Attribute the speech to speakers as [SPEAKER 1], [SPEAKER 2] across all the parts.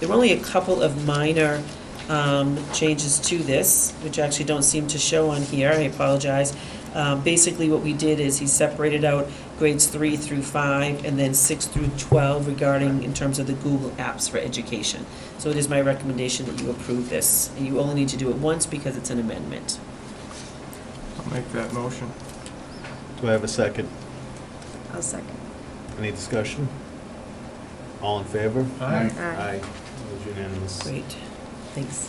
[SPEAKER 1] There were only a couple of minor um, changes to this, which actually don't seem to show on here, I apologize. Um, Basically, what we did is he separated out grades three through five, and then six through 12 regarding, in terms of the Google Apps for Education. So it is my recommendation that you approve this, and you only need to do it once because it's an amendment.
[SPEAKER 2] I'll make that motion.
[SPEAKER 3] Do I have a second?
[SPEAKER 4] I'll second.
[SPEAKER 3] Any discussion? All in favor?
[SPEAKER 2] Aye.
[SPEAKER 3] Aye. It was unanimous.
[SPEAKER 1] Great, thanks.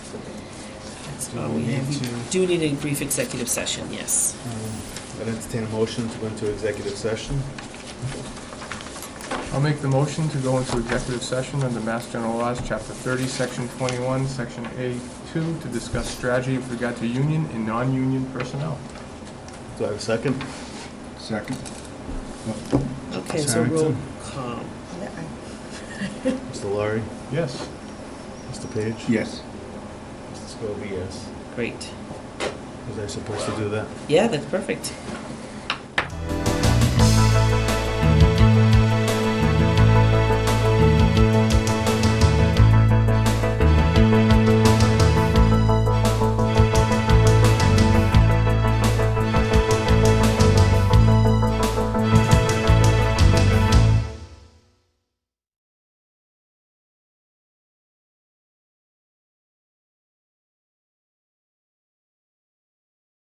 [SPEAKER 1] That's
[SPEAKER 3] Do
[SPEAKER 1] all
[SPEAKER 3] we
[SPEAKER 1] we have.
[SPEAKER 3] need
[SPEAKER 1] We
[SPEAKER 3] to-
[SPEAKER 1] do need a brief executive session, yes.
[SPEAKER 3] Um, I'd entertain a motion to go into executive session.
[SPEAKER 2] I'll make the motion to go into executive session under Mass General Laws, Chapter 30, Section 21, Section A2, to discuss strategy with regard to union and non-union personnel.
[SPEAKER 3] Do I have a second?
[SPEAKER 5] Second.
[SPEAKER 1] Okay, so roll
[SPEAKER 5] Sorry.
[SPEAKER 1] call.
[SPEAKER 3] Mr. Laurie?
[SPEAKER 2] Yes.
[SPEAKER 3] Mr. Page?
[SPEAKER 5] Yes.
[SPEAKER 3] Mr. Scobie, yes.
[SPEAKER 1] Great.
[SPEAKER 3] Was I supposed to do that?
[SPEAKER 1] Yeah, that's perfect.